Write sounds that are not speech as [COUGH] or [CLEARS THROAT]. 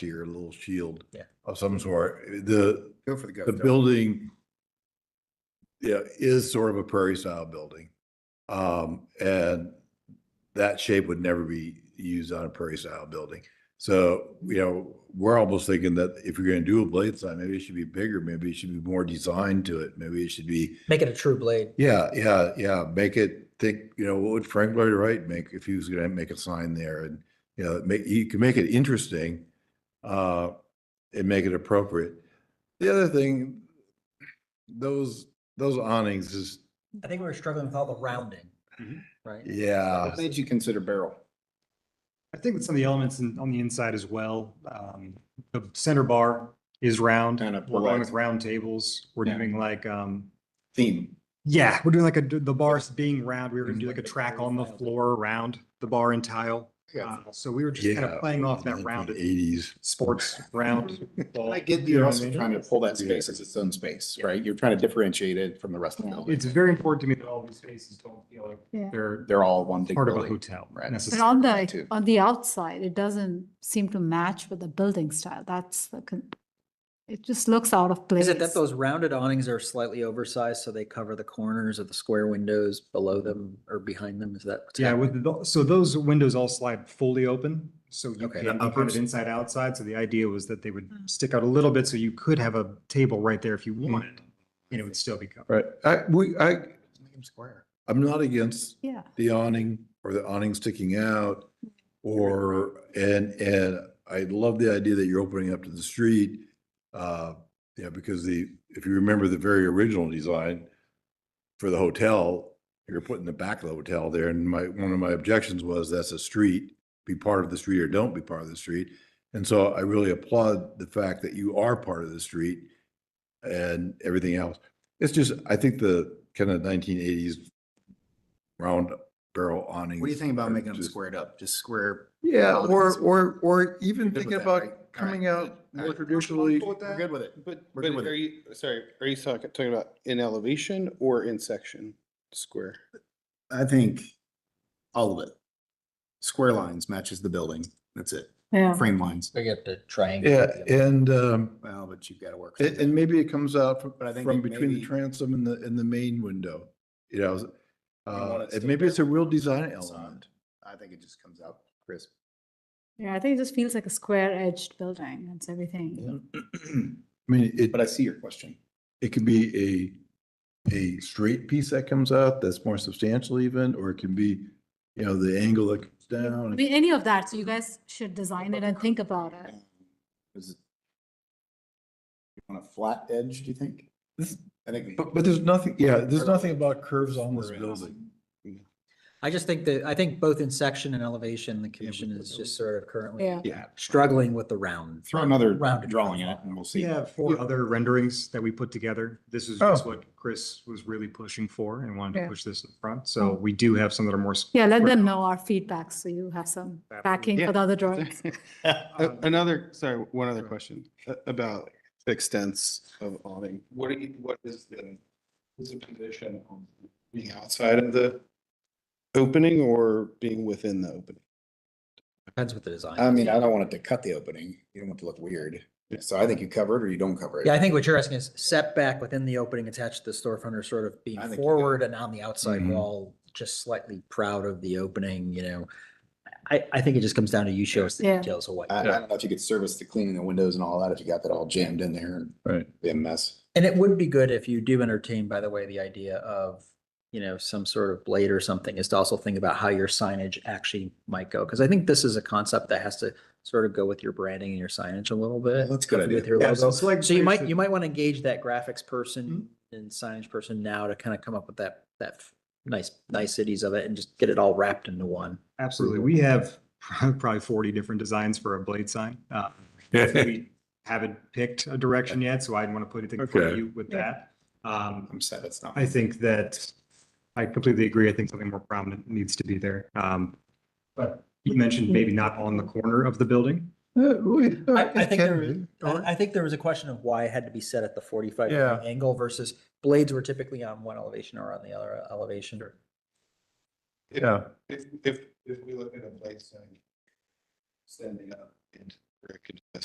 here, a little shield. Yeah. Of some sort. The, Go for the the gusto. building, yeah, is sort of a prairie style building. Um, and that shape would never be used on a prairie style building. So, you know, we're almost thinking that if you're gonna do a blade sign, maybe it should be bigger, maybe it should be more designed to it, maybe it should be, Make it a true blade. yeah, yeah, yeah, make it think, you know, what would Frank Lloyd Wright make if he was gonna make a sign there and, you know, make, you can make it interesting, uh, and make it appropriate. The other thing, those, those awnings is, I think we were struggling with all the rounding, Mhm. right? yeah. What made you consider barrel? I think with some of the elements in- on the inside as well, um, the center bar is round. Kind of We're going with polarized. round tables. We're Yeah. doing like, um, Theme. yeah, we're doing like a, the bars being round. We were gonna do like a Like a track fairy on the tile. floor around the bar and tile. Yeah. Uh, So we were just kind Yeah, of playing off that rounded Eighties. sports round. ball. I get that You know you're what I also mean? trying to pull that Yeah. space as its own space, right? You're trying to differentiate it from the rest of the building. It's very important to me that all these spaces don't feel Yeah. like they're They're all one big part of a building. hotel Right. But necessarily. on that the, too. on the outside, it doesn't seem to match with the building style. That's the, con- it just looks out of place. Is it that those rounded awnings are slightly oversized so they cover the corners of the square windows below them or behind them? Is that? what's Yeah, happening? with the, so those windows all slide fully open, so you Okay. can put Uppers. it inside, outside, so the idea was that they would Hmm. Mm. stick out a little bit, so you could have a table right there if you wanted. Hmm. And it would still be covered. Right, I, we, I, Make them square. I'm not against Yeah, the awning or the awning sticking out. Or, and, and I love the idea that you're opening up to the street. Uh, yeah, because the, if you remember the very original design for the hotel, you're putting the back of the hotel there and my, one of my objections was that's a street. Be part of the street or don't be part of the street. And so I really applaud the fact that you are part of the street and everything else. It's just, I think the kind of nineteen eighties round barrel awning. What do you think about making them squared up? Just square. Yeah, Well, or, it's- or, or even You're good thinking with that, right? All about right, coming good. out All more right. traditionally. We're good with it. But, We're but good with are it. you, sorry, are you talking, talking about in elevation or in section square? I think all of it. Square lines matches the building. That's it. yeah. Frame lines. We get the triangle. Yeah, and, um, Well, but you've got to work. through and, that. and maybe it comes out from, But I think from it between the maybe- transom and the, and the main window, you know? want Uh, it and still maybe it's a there. real design It's not. element. I think it just comes out crisp. Yeah, I think it just feels like a square edged building. That's everything. [CLEARS THROAT] I mean, it, But I see your question. it could be a, a straight piece that comes out that's more substantial even, or it can be, you know, the angle that comes I down. mean, any of that. So you guys should design it and think about it. Um, Is it on a flat edge, do you think? This- I think. But, but there's nothing, yeah, there's nothing about curves on this Square in. [LAUGHS] building. I just think that, I think both in section and elevation, the commission but is those- just sort of currently Yeah. Yeah, struggling with the round. throw another Rounded drawing in it and we'll see. [LAUGHS] We have four other renderings that we put together. This Oh. is just what Chris was really pushing for and wanted Yeah. to push this in front, so Hmm. we do have some that are more. s- Yeah, let square. them know our feedback so you have some backing Yeah. for the other drawings. A- Uh, Another, sorry, one other Sure. question a- about extents of awning. What do you, what is the, is the position on being outside of the opening or being within the opening? Depends what the Um, design. I is. mean, I don't want it to cut the opening. You don't want it to look weird. So I think you cover it or you don't cover it. Yeah, I think what you're asking is setback within the opening attached to the storefront or sort of being I think you got it. forward and on the outside Mhm. wall, just slightly proud of the opening, you know. I, I think it just comes down to you show us the Yeah. details of what. I, I don't know if you could service the cleaning the windows and all that, if you got that all jammed in there and Right. be a mess. And it would be good if you do entertain, by the way, the idea of, you know, some sort of blade or something is to also think about how your signage actually might go. Cause I think this is a concept that has to sort of go with your branding and your signage a little bit. That's a good idea. With your Yeah, so logo. it's like So you might, Chris- you might want to engage that graphics person and signage person now to kind of come up with that, that f- nice, niceties of it and just get it all wrapped into one. Absolutely. We have [LAUGHS] probably forty different designs for a blade sign. Uh, We Haven't picked a direction yet, so I didn't want to put anything in front of Okay. you with Yeah. that. Um, I'm sad that's not. I think that I completely agree. I think something more prominent needs to be there. Um, but you mentioned maybe not on the corner of the building. I, I think there, was- I I think there was a question of why it had to be set at the forty-five Yeah. degree angle versus blades were typically on one elevation or on the other elevation. If- Yeah. If, if, if we look at a place sign standing up and directed to the